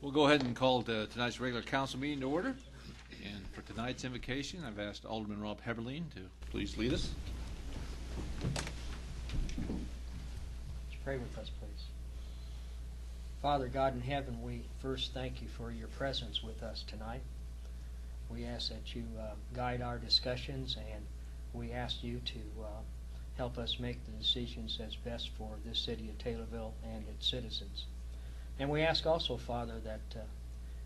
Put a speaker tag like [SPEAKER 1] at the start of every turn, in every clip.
[SPEAKER 1] We'll go ahead and call to tonight's regular council meeting to order. And for tonight's invocation, I've asked Alderman Rob Heberlin to please lead us.
[SPEAKER 2] Let's pray with us, please. Father God in heaven, we first thank you for your presence with us tonight. We ask that you uh, guide our discussions and we ask you to uh, help us make the decisions that's best for this city of Taylorville and its citizens. And we ask also, Father, that uh,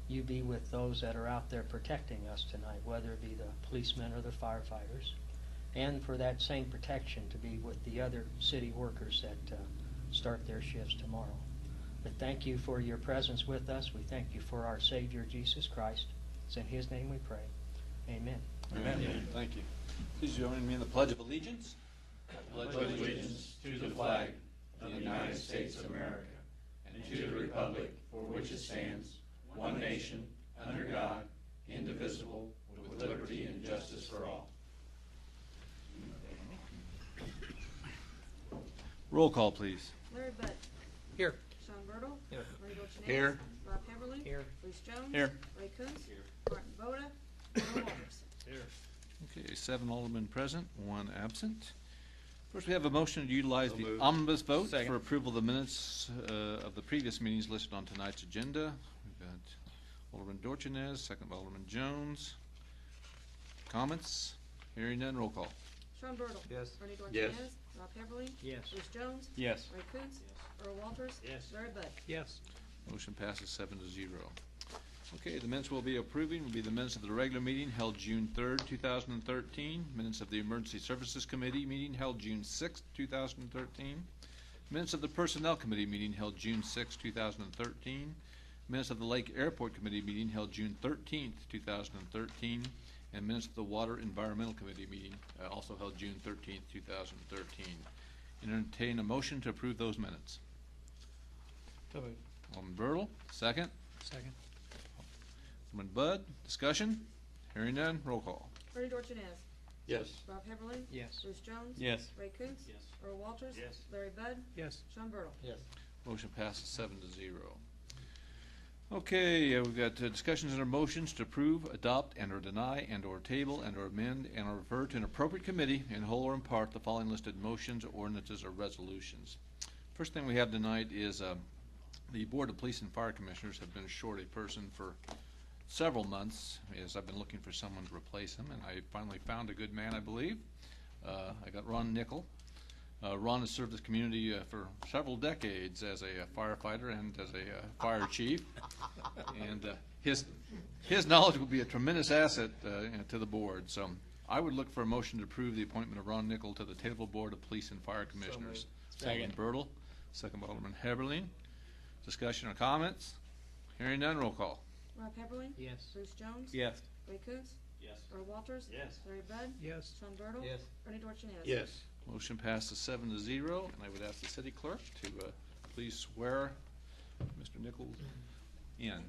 [SPEAKER 2] you be with those that are out there protecting us tonight, whether it be the policemen or the firefighters and for that same protection to be with the other city workers that uh, start their shifts tomorrow. But thank you for your presence with us. We thank you for our Savior Jesus Christ. It's in His name we pray. Amen.
[SPEAKER 1] Amen. Thank you. Please join me in the Pledge of Allegiance.
[SPEAKER 3] pledge allegiance to the flag of the United States of America and to the republic for which it stands, one nation, under God, indivisible, with liberty and justice for all.
[SPEAKER 1] Roll call, please.
[SPEAKER 4] Larry Bud.
[SPEAKER 2] Here.
[SPEAKER 4] Sean Bertle.
[SPEAKER 2] Here.
[SPEAKER 4] Rodney Rushing.
[SPEAKER 1] Here.
[SPEAKER 4] Rob Heatherly.
[SPEAKER 2] Here.
[SPEAKER 4] Bruce Jones.
[SPEAKER 1] Here.
[SPEAKER 4] Ray Coontz. Martin Voda. Earl Walters.
[SPEAKER 1] Okay, seven Alderman present, one absent. First, we have a motion to utilize the omnibus vote for approval of the minutes uh, of the previous meetings listed on tonight's agenda. We've got Alderman Dorchenez, second by Alderman Jones. Comments? Hearing none, roll call.
[SPEAKER 4] Sean Bertle.
[SPEAKER 5] Yes.
[SPEAKER 4] Rodney
[SPEAKER 3] Yes.
[SPEAKER 4] Dorchenez. Rob Heatherly.
[SPEAKER 2] Yes.
[SPEAKER 4] Bruce Jones.
[SPEAKER 5] Yes.
[SPEAKER 4] Ray Coontz. Earl Walters.
[SPEAKER 5] Yes.
[SPEAKER 4] Larry Bud.
[SPEAKER 5] Yes.
[SPEAKER 1] Motion passes seven to zero. Okay, the minutes we'll be approving will be the minutes of the regular meeting held June third, two thousand and thirteen, minutes of the Emergency Services Committee meeting held June sixth, two thousand and thirteen, minutes of the Personnel Committee meeting held June sixth, two thousand and thirteen, minutes of the Lake Airport Committee meeting held June thirteenth, two thousand and thirteen, and minutes of the Water Environmental Committee meeting, uh, also held June thirteenth, two thousand and thirteen. Entertain a motion to approve those minutes.
[SPEAKER 5] So moved.
[SPEAKER 1] Alderman Bertle, second.
[SPEAKER 5] Second.
[SPEAKER 1] Alderman Bud, discussion? Hearing none, roll call.
[SPEAKER 4] Rodney Dorchenez.
[SPEAKER 3] Yes.
[SPEAKER 4] Rob Heatherly.
[SPEAKER 2] Yes.
[SPEAKER 4] Bruce Jones.
[SPEAKER 5] Yes.
[SPEAKER 4] Ray Coontz.
[SPEAKER 5] Yes.
[SPEAKER 4] Earl Walters.
[SPEAKER 5] Yes.
[SPEAKER 4] Larry Bud.
[SPEAKER 5] Yes.
[SPEAKER 4] Sean Bertle.
[SPEAKER 5] Yes.
[SPEAKER 1] Motion passes seven to zero. Okay, uh, we've got uh, discussions and our motions to approve, adopt, and/or deny, and/or table, and/or amend, and/or refer to an appropriate committee in whole or in part the following listed motions, ordinances, or resolutions. First thing we have tonight is um, the Board of Police and Fire Commissioners have been short a person for several months, as I've been looking for someone to replace him, and I finally found a good man, I believe. Uh, I got Ron Nickel. Uh, Ron has served this community uh, for several decades as a uh, firefighter and as a uh, fire chief. And uh, his, his knowledge will be a tremendous asset uh, you know, to the board. So I would look for a motion to approve the appointment of Ron Nickel to the Taylorville Board of Police and Fire Commissioners. Second. Bertle, second by Alderman Heberlin. Discussion or comments? Hearing none, roll call.
[SPEAKER 4] Rob Heatherly.
[SPEAKER 2] Yes.
[SPEAKER 4] Bruce Jones.
[SPEAKER 5] Yes.
[SPEAKER 4] Ray Coontz.
[SPEAKER 5] Yes.
[SPEAKER 4] Earl Walters.
[SPEAKER 5] Yes.
[SPEAKER 4] Larry Bud.
[SPEAKER 5] Yes.
[SPEAKER 4] Sean Bertle.
[SPEAKER 5] Yes.
[SPEAKER 4] Rodney Dorchenez.
[SPEAKER 3] Yes.
[SPEAKER 1] Motion passes seven to zero, and I would ask the city clerk to uh, please swear Mr. Nichols in.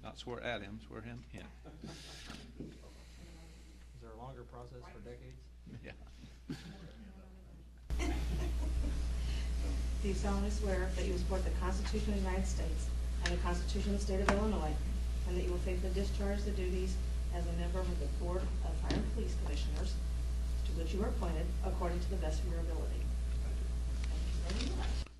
[SPEAKER 1] Not swear at him, swear him in.
[SPEAKER 5] Is there a longer process for decades?
[SPEAKER 1] Yeah.
[SPEAKER 6] Do you solemnly swear that you will support the Constitution of the United States and the Constitution of the State of Illinois, and that you will faithfully discharge the duties as a member of the Board of Fire and Police Commissioners, to which you are appointed, according to the best of your ability? Thank you very much.